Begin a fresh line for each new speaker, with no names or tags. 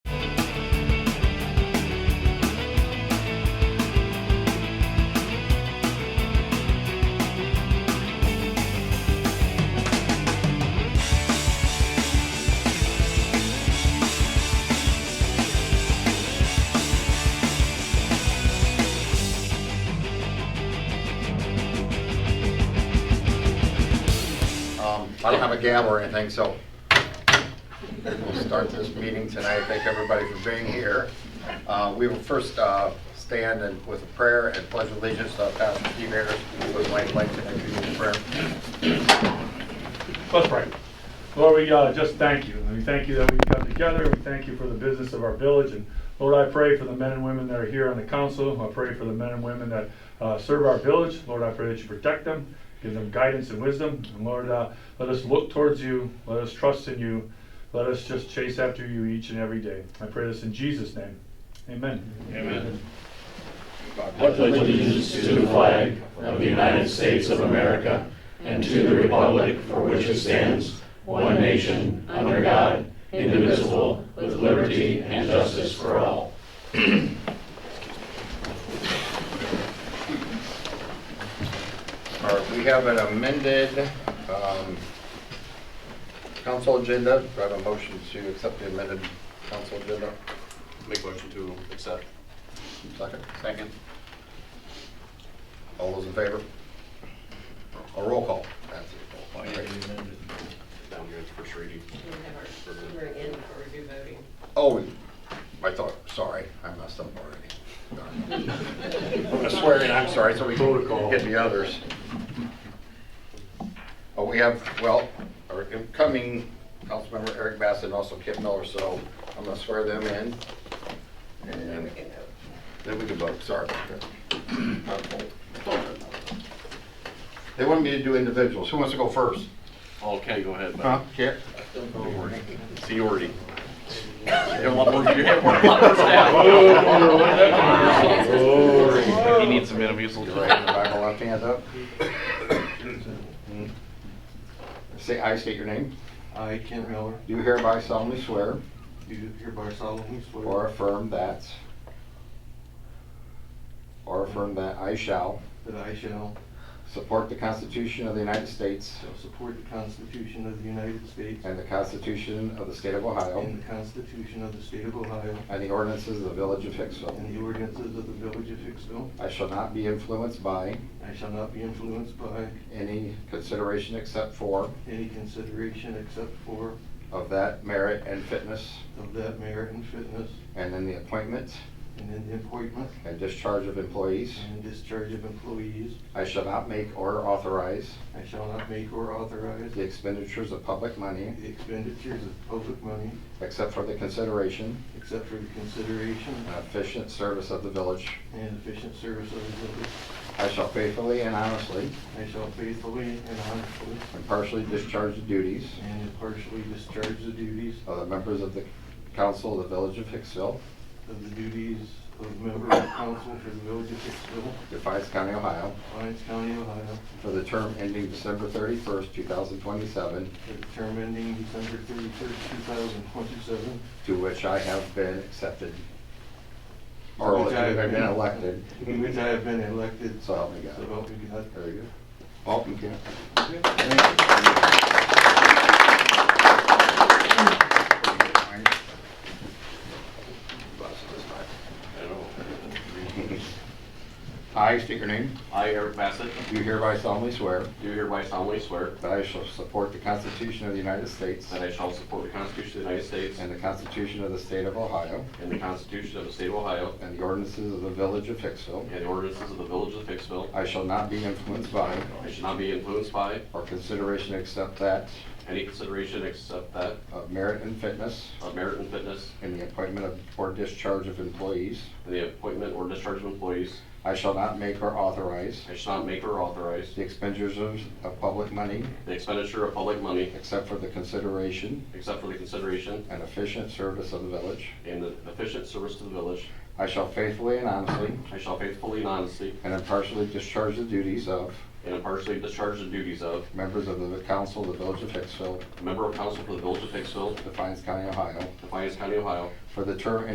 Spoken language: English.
Um, I don't have a gavel or anything, so we'll start this meeting tonight. Thank everybody for being here. Uh, We will first uh, stand and with a prayer and pledge allegiance to Pastor Steve Ayers, who would like like to introduce the prayer.
Let's pray. Lord, we uh, just thank you. And we thank you that we've come together. We thank you for the business of our village. And Lord, I pray for the men and women that are here on the council. I pray for the men and women that uh, serve our village. Lord, I pray that you protect them, give them guidance and wisdom. And Lord, uh, let us look towards you. Let us trust in you. Let us just chase after you each and every day. I pray this in Jesus' name. Amen.
Amen.
I pledge allegiance to the flag of the United States of America and to the republic for which it stands, one nation, under God, indivisible, with liberty and justice for all.
All right, we have an amended um, council agenda. Do I have a motion to accept the amended council agenda?
Make motion to accept.
Second? Second. All those in favor? A roll call. That's it. Great.
Down here, it's first reading.
We're in for review voting.
Oh, I thought, sorry, I messed up already. Darn. I swear, in, I'm sorry, so we can get the others. Oh, we have, well, our incoming Councilmember Eric Bassett and also Kip Miller, so I'm gonna swear them in.
We
And
can vote.
then we can vote, sorry. about that. They want me to do individuals, who wants to go first?
Okay, go ahead.
Huh, Kip?
Seority. Oh, He needs some enemies.
Raise your right hand, Bible left hand up. Say, I state your name.
I, Kent Miller,
Do hereby solemnly swear
do hereby solemnly swear
or affirm that, or affirm that I shall
that I shall
support the Constitution of the United States
shall support the Constitution of the United States
and the Constitution of the State of Ohio
and the Constitution of the State of Ohio
and the ordinances of the Village of
and the
Hicksville.
ordinances of the Village of Hicksville.
I shall not be influenced by
I shall not be influenced by
any consideration except for
any consideration except for
of that merit and fitness
of that merit and fitness
and in the appointment
and in the appointment
and discharge of employees.
and in discharge of employees.
I shall not make or authorize
I shall not make or authorize
the expenditures of public money
the expenditures of public money
except for the consideration
except for the consideration
and efficient service of the village.
and efficient service of the village.
I shall faithfully and honestly,
I shall faithfully and honestly
impartially discharge the duties
And impartially discharge the duties
of the members of the council of the village of Hicksville,
of the duties of member of council for the village of Hicksville,
Defiance County, Ohio,
Lyons County, Ohio,
for the term ending December 31st, 2027,
for the term ending December thirty-first, two thousand twenty-seven.
to which I have been accepted, or I've been elected,
Which I have been elected,
so
so
help me God.
help me God.
Very good. Welcome, Ken. I state your name.
I, Eric Bassett,
Do hereby solemnly swear
do hereby solemnly swear
that I shall support the Constitution of the United States
that I shall support the Constitution of the United States
and the Constitution of the State of Ohio
and the Constitution of the State of Ohio
and the ordinances of the Village of Hicksville.
and the ordinances of the Village of Hicksville.
I shall not be influenced by
I should not be influenced by
or consideration except that
any consideration except that
of merit and fitness
of merit and fitness
in the appointment of or discharge of employees.
and the appointment or discharge of employees.
I shall not make or authorize
I should not make or authorize
the expenditures of, of public money
the expenditure of public money
except for the consideration
except for the consideration
and efficient service of the village.
and the efficient service to the village.
I shall faithfully and honestly
I shall faithfully and honestly
and impartially discharge the duties of
and impartially discharge the duties of
members of the council of the village of Hicksville,
a member of council for the Village of Hicksville,
Defiance County, Ohio,
Defiance County, Ohio,
for the term